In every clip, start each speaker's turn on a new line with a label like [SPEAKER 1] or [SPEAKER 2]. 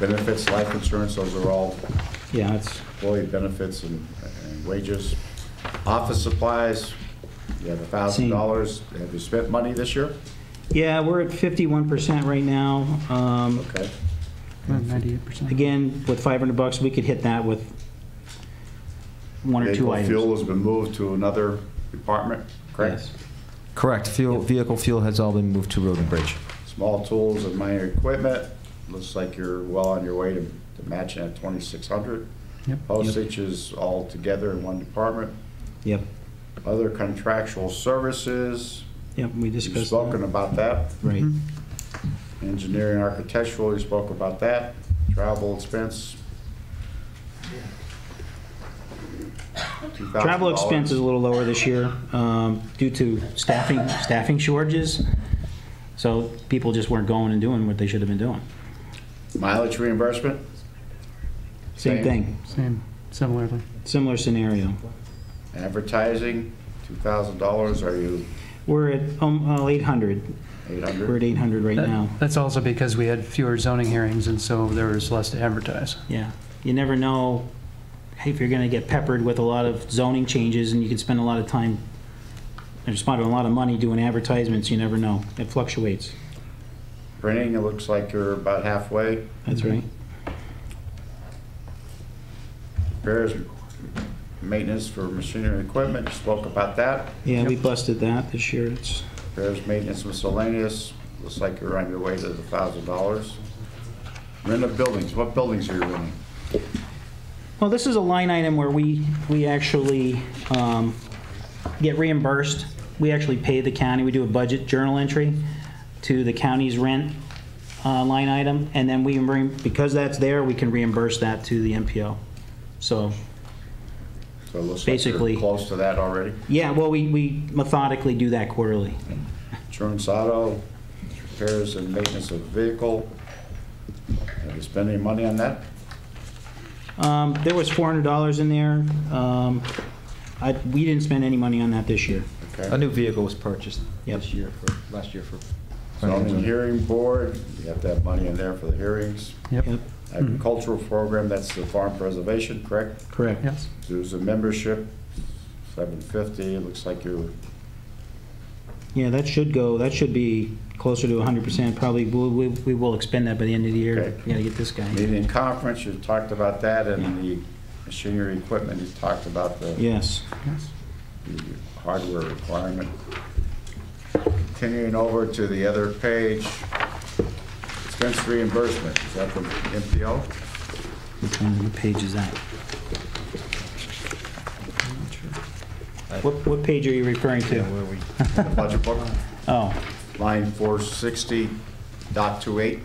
[SPEAKER 1] Benefits, life insurance, those are all
[SPEAKER 2] Yeah, it's,
[SPEAKER 1] employee benefits and and wages. Office supplies, you have a thousand dollars. Have you spent money this year?
[SPEAKER 2] yeah, we're at 51% right now. Um,
[SPEAKER 1] Okay.
[SPEAKER 3] Ninety-eight percent.
[SPEAKER 2] Again, with 500 bucks, we could hit that with one or two
[SPEAKER 1] Vehicle
[SPEAKER 2] items.
[SPEAKER 1] Fuel has been moved to another department, correct?
[SPEAKER 2] Yes.
[SPEAKER 4] Correct. Fuel, vehicle fuel has all been moved to road and bridge.
[SPEAKER 1] Small tools and minor equipment, looks like you're well on your way to to matching at twenty-six hundred.
[SPEAKER 3] Yep.
[SPEAKER 1] Postage is all together in one department.
[SPEAKER 2] Yep,
[SPEAKER 1] Other contractual services,
[SPEAKER 2] yep, we discussed
[SPEAKER 1] you've
[SPEAKER 2] that.
[SPEAKER 1] spoken about that.
[SPEAKER 2] Right,
[SPEAKER 1] Engineering, architectural, you spoke about that. Travel expense. $2,000.
[SPEAKER 2] Travel expense is a little lower this year um, due to staffing, staffing shortages. So people just weren't going and doing what they should have been doing.
[SPEAKER 1] Mileage reimbursement,
[SPEAKER 2] Same
[SPEAKER 1] Same.
[SPEAKER 2] thing,
[SPEAKER 3] Same, similarly.
[SPEAKER 2] similar scenario.
[SPEAKER 1] advertising, two thousand dollars, are you
[SPEAKER 2] We're at um, uh, 800,
[SPEAKER 1] eight
[SPEAKER 2] we're
[SPEAKER 1] hundred?
[SPEAKER 2] at 800 right now.
[SPEAKER 3] That's also because we had fewer zoning hearings, and so there was less to advertise.
[SPEAKER 2] Yeah, you never know if you're gonna get peppered with a lot of zoning changes, and you can spend a lot of time, and spend a lot of money doing advertisements, you never know. It fluctuates,
[SPEAKER 1] Printing, it looks like you're about halfway.
[SPEAKER 2] that's right.
[SPEAKER 1] Repairs, maintenance for machinery and equipment, you spoke about that.
[SPEAKER 2] Yeah, we busted that this year, it's,
[SPEAKER 1] Repairs, maintenance miscellaneous, looks like you're on your way to the thousand dollars. Rent of buildings, what buildings are you renting?
[SPEAKER 2] well, this is a line item where we, we actually um, get reimbursed. We actually pay the county, we do a budget journal entry to the county's rent uh, line item, and then we, re- because that's there, we can reimburse that to the MPO. So
[SPEAKER 1] So it looks like
[SPEAKER 2] Basically-
[SPEAKER 1] you're close to that already.
[SPEAKER 2] Yeah, well, we, we methodically do that quarterly.
[SPEAKER 1] Insurance auto, repairs and maintenance of vehicle. Have you spent any money on that?
[SPEAKER 2] Um, there was four hundred dollars in there. Um, I, we didn't spend any money on that this year.
[SPEAKER 4] A
[SPEAKER 1] Okay.
[SPEAKER 4] new vehicle was purchased
[SPEAKER 2] Yep.
[SPEAKER 4] this year for, last year for.
[SPEAKER 1] Zoning hearing board, you have to have money in there for the hearings.
[SPEAKER 3] Yep,
[SPEAKER 1] Agricultural program, that's the farm preservation, correct?
[SPEAKER 2] Correct.
[SPEAKER 3] yes.
[SPEAKER 1] There's a membership, seven fifty, it looks like you're,
[SPEAKER 2] Yeah, that should go, that should be closer to hundred percent, probably, we, we, we will expend that by the end of the year.
[SPEAKER 1] Okay.
[SPEAKER 2] We gotta get this guy.
[SPEAKER 1] meeting and conference, you talked about that, and the machinery equipment, you talked about the
[SPEAKER 2] Yes.
[SPEAKER 1] the hardware requirement. Continuing over to the other page, expense reimbursement, is that the MPO?
[SPEAKER 2] Which one what page is that? What, what page are you referring to?
[SPEAKER 4] Where we,
[SPEAKER 1] The budget book,
[SPEAKER 2] Oh,
[SPEAKER 1] line four sixty dot two eight.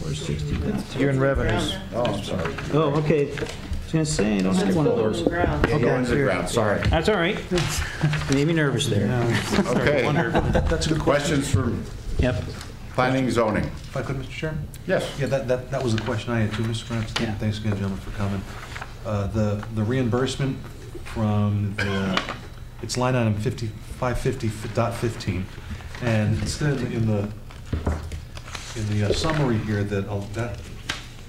[SPEAKER 2] four sixty dot two.
[SPEAKER 4] you're in revenues.
[SPEAKER 1] Oh, I'm sorry.
[SPEAKER 2] Oh, okay. I was gonna say, I don't have one of those.
[SPEAKER 1] Yeah, you're in the ground, sorry.
[SPEAKER 2] That's all right. Made me nervous there.
[SPEAKER 1] Okay.
[SPEAKER 5] That's a good question.
[SPEAKER 1] Questions from
[SPEAKER 2] Yep.
[SPEAKER 1] planning and zoning?
[SPEAKER 5] If I could, Mr. Chair?
[SPEAKER 1] Yes.
[SPEAKER 5] Yeah, that, that, that was the question I had too, Mr. Gramston.
[SPEAKER 2] Yeah.
[SPEAKER 5] Thanks again, gentlemen, for coming. Uh, the, the reimbursement from the, it's line item fifty, five fifty dot fifteen. And it's in, in the, in the uh, summary here that, uh, that,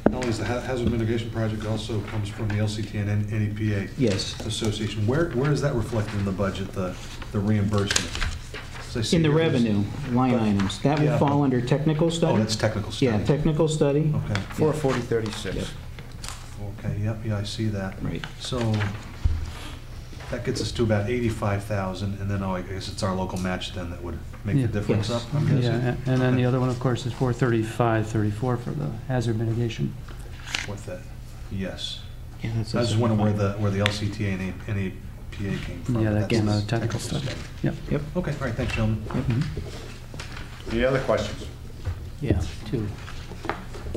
[SPEAKER 5] not only is the ha- hazard mitigation project also comes from the LCT and NEPA.
[SPEAKER 2] Yes.
[SPEAKER 5] Association. Where, where is that reflected in the budget, the, the reimbursement? 'Cause I see
[SPEAKER 2] In the
[SPEAKER 5] here there's-
[SPEAKER 2] revenue line items, that would
[SPEAKER 5] Yeah.
[SPEAKER 2] fall under technical study?
[SPEAKER 5] Oh, that's Oh. technical study.
[SPEAKER 2] Yeah, technical study.
[SPEAKER 5] Okay.
[SPEAKER 1] Four forty thirty-six.
[SPEAKER 5] Okay, yep, yeah, I see that.
[SPEAKER 2] Right.
[SPEAKER 5] So that gets us to about 85,000, and then oh, I guess it's our local match then that would make
[SPEAKER 3] Yeah.
[SPEAKER 5] the difference
[SPEAKER 2] Yes.
[SPEAKER 5] up, I'm
[SPEAKER 3] Yeah,
[SPEAKER 5] guessing?
[SPEAKER 3] and- and then the other one, of course, is four thirty-five, thirty-four for the hazard mitigation.
[SPEAKER 5] With that, yes.
[SPEAKER 2] Yeah, that's-
[SPEAKER 5] I was just wondering where the, where the LCTA and A- and APA came from.
[SPEAKER 3] Yeah, that
[SPEAKER 5] That's
[SPEAKER 3] came out
[SPEAKER 5] the
[SPEAKER 3] of technical study. Yep.
[SPEAKER 2] Yep,
[SPEAKER 5] Okay, all right, thanks, gentlemen.
[SPEAKER 1] Any other questions?
[SPEAKER 6] Yeah, two.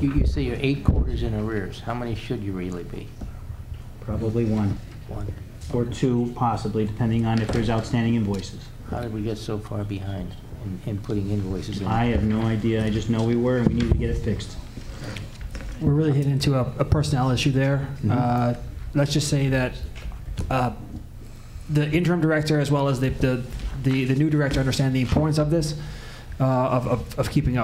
[SPEAKER 6] You, you say you're eight quarters in arrears. How many should you really be?
[SPEAKER 2] probably one,
[SPEAKER 6] One.
[SPEAKER 2] or two possibly, depending on if there's outstanding invoices.
[SPEAKER 6] How did we get so far behind in, in putting invoices in?
[SPEAKER 2] I have no idea, I just know we were, and we need to get it fixed.
[SPEAKER 7] we're really hitting into a, a personnel issue there. Uh, let's just say that uh, the interim director, as well as the, the, the, the new director, understand the importance of this, uh, of, of, of keeping up.